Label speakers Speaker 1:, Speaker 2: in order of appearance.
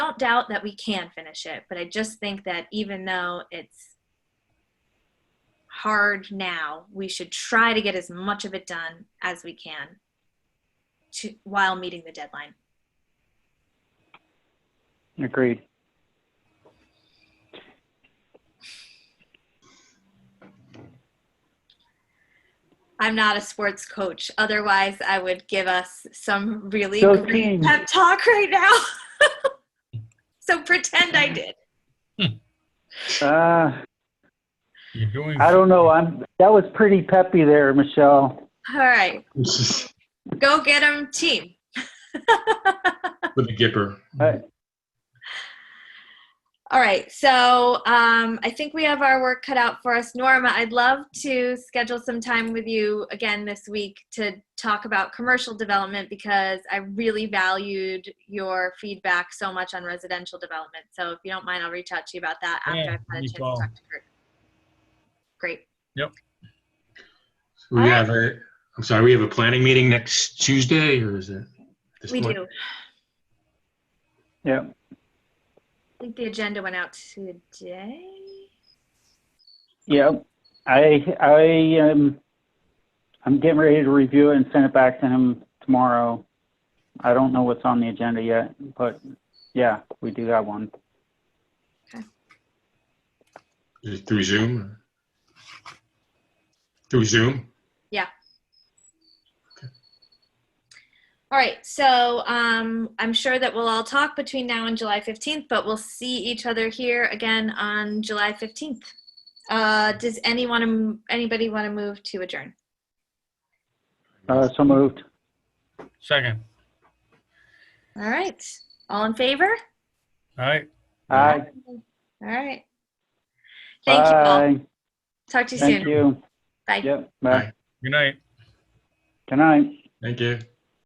Speaker 1: doubt that we can finish it, but I just think that even though it's hard now, we should try to get as much of it done as we can to, while meeting the deadline.
Speaker 2: Agreed.
Speaker 1: I'm not a sports coach. Otherwise, I would give us some really
Speaker 2: Go
Speaker 1: great
Speaker 2: team.
Speaker 1: pep talk right now. so pretend I did.
Speaker 2: Uh,
Speaker 3: You're going.
Speaker 2: I don't know. I'm, that was pretty peppy there, Michelle.
Speaker 1: All right,
Speaker 3: With
Speaker 1: go get 'em, team.
Speaker 3: the Gipper.
Speaker 2: Alright.
Speaker 1: All right, so um, I think we have our work cut out for us. Norma, I'd love to schedule some time with you again this week to talk about commercial development because I really valued your feedback so much on residential development. So if you don't mind, I'll reach out to you about that after
Speaker 3: Yeah,
Speaker 1: I've had a
Speaker 3: no
Speaker 1: chance
Speaker 3: problem.
Speaker 1: to talk to Kurt. Great.
Speaker 3: We
Speaker 1: Alright.
Speaker 3: have a, I'm sorry, we have a planning meeting next Tuesday or is it? this
Speaker 1: We
Speaker 3: one?
Speaker 1: do.
Speaker 2: Yeah.
Speaker 1: I think the agenda went out today.
Speaker 2: Yeah. I, I am, I'm getting ready to review it and send it back to him tomorrow. I don't know what's on the agenda yet, but yeah, we do that one.
Speaker 3: Is it Through Zoom? or- Through Zoom?
Speaker 1: All right, so um, I'm sure that we'll all talk between now and July 15th, but we'll see each other here again on July 15th. Uh, does anyone, anybody want to move to adjourn?
Speaker 2: Uh, so moved.
Speaker 4: Second.
Speaker 1: All right, all in favor?
Speaker 4: All right.
Speaker 2: Aye.
Speaker 1: All right. Thank you all.
Speaker 2: Bye.
Speaker 1: Talk to you
Speaker 2: Thank
Speaker 1: soon.
Speaker 2: you.
Speaker 1: Bye.
Speaker 2: Yep.
Speaker 3: Bye.
Speaker 2: Bye.
Speaker 4: Good night.
Speaker 2: Good night.
Speaker 3: Thank you.